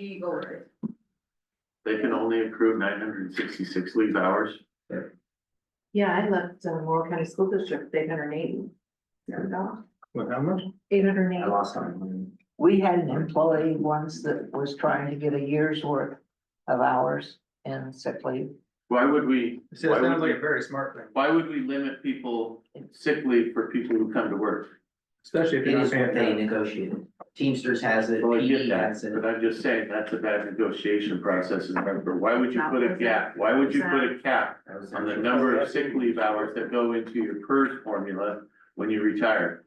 be voted. They can only accrue nine hundred and sixty-six leave hours. Yeah, I left uh, Moore County School District, eight hundred and eighty. What, how much? Eight hundred and eighty. lost time. We had an employee once that was trying to get a year's worth of hours in sick leave. Why would we, See, that why sounds would like we, a very smart thing, why would we limit people sick leave for people who come to work? especially if It you're is not what paying they attention. negotiated. Teamsters has it, Well, I get PD that, E has it. but I'm just saying, that's a bad negotiation process in November. Why would you put a cap? Why would you put a cap on the number of sick leave hours that go into your PERS formula when you retire?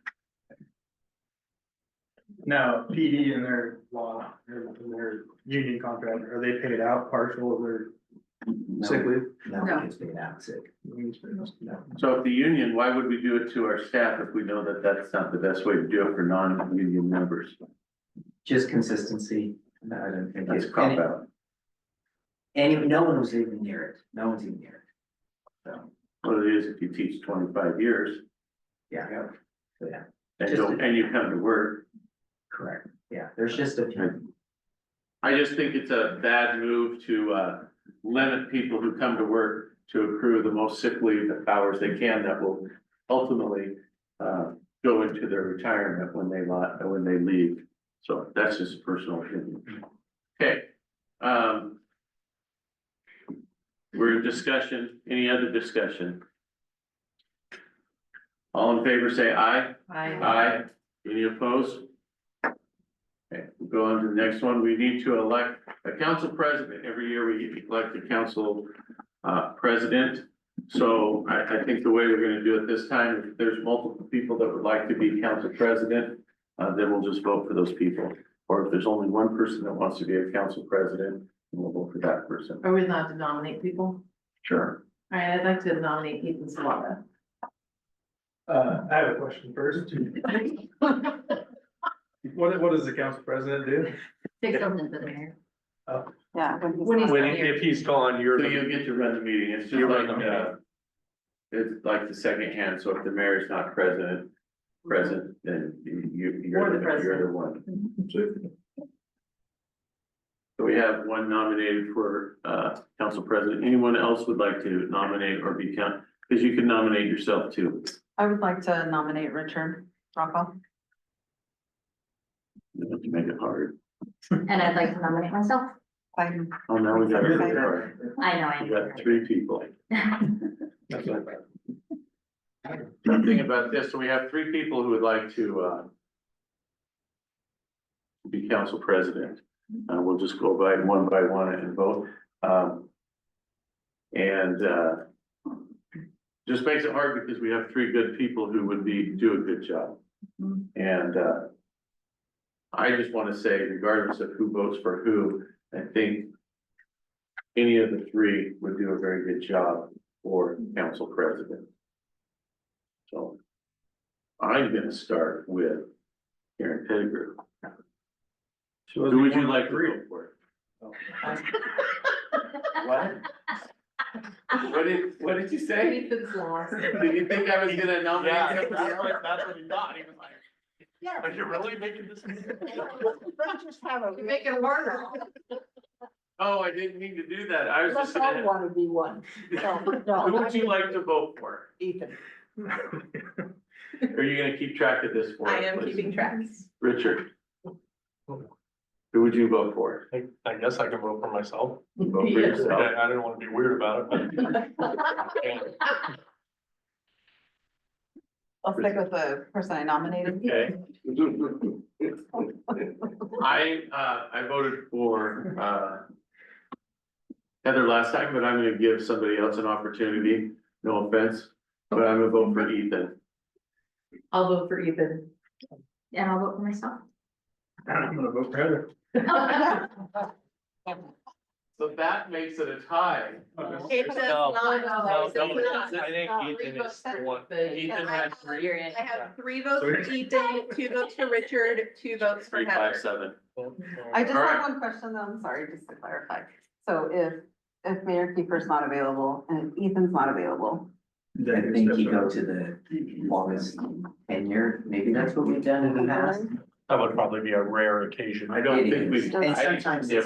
No, PD and their law, their, their union contract, are they paid out partial of their No, sick leave? No, it's been out sick. No. So if the union, why would we do it to our staff if we know that that's not the best way to do it for non-union members? Just consistency. No, I don't think That's it's. a cop out. And and no one was even near it. No one's even near it. So, Well, it is if you teach twenty-five years yeah, and Just don't, a- and you come to work. correct. Yeah, there's just a few. I just think it's a bad move to, uh, limit people who come to work to accrue the most sick leave hours they can that will ultimately, uh, go into their retirement when they lot, when they leave. So that's just a personal opinion. Okay, um, we're in discussion, any other discussion? All in favor, say aye. Aye. Any opposed? Okay, we'll go on to the next one. We need to elect a council president. Every year we elect a council uh, president. So I, I think the way we're gonna do it this time, if there's multiple people that would like to be council president, uh, then we'll just vote for those people. Or if there's only one person that wants to be a council president, we'll vote for that person. Are we allowed to nominate people? Sure. All right, I'd like to nominate Ethan Salata. Uh, I have a question first. What, what does the council president do? Take something to the mayor. Yeah. When he's When, not here. if he's gone, you're, So the- you get to run the meeting. It's just You run like, the uh, it's like the second hand. So if the mayor's not president, present, then you, you- you're, Or the the- you're the one. So we have one nominated for, uh, council president. Anyone else would like to nominate or be count? Because you can nominate yourself too. I would like to nominate Richard Rockoff. You have to make it hard. And I'd like to nominate myself. I'm Oh, now we got, You're the we I know I am. got three people. That's what I thought. Something about this, so we have three people who would like to, uh, be council president. Uh, we'll just go by one by one and vote, um. And, uh, just makes it hard because we have three good people who would be, do a good job. And, uh, I just want to say regardless of who votes for who, I think any of the three would do a very good job for council president. So I'm gonna start with Karen Pettigrew. She Who wasn't would even you like to three. vote for? What? What did, what did you say? Ethan Salata. Did you think I was gonna nominate somebody else? that's what he thought, he was like, Yeah. are you really making this? Let's just have a. You make it harder. Oh, I didn't mean to do that. I was Let's just not gonna. want to be one. No, no. Who would you like to vote for? Ethan. Are you gonna keep track of this for us? I am please? keeping tracks. Richard. Who would you vote for? I, I guess I can vote for myself. Vote for yourself. I, I didn't wanna be weird about it, but. I'll stick with the person I nominated. Okay. I, uh, I voted for, uh, Heather last time, but I'm gonna give somebody else an opportunity, no offense, but I'm gonna vote for Ethan. I'll vote for Ethan. And I'll vote for myself. I'm gonna vote for Heather. So that makes it a tie. no, no, it's not. I think Ethan is the one. Ethan had three, You're in. I have three votes So for we- Ethan, two votes for Richard, two votes for three, five, Heather. seven. I just All right. have one question though, I'm sorry, just to clarify. So if, if Mayor Kiefer's not available and if Ethan's not available, I think you go to the longest tenure. Maybe that's what we've done in the past. That would probably be a rare occasion. I don't think we. And sometimes it's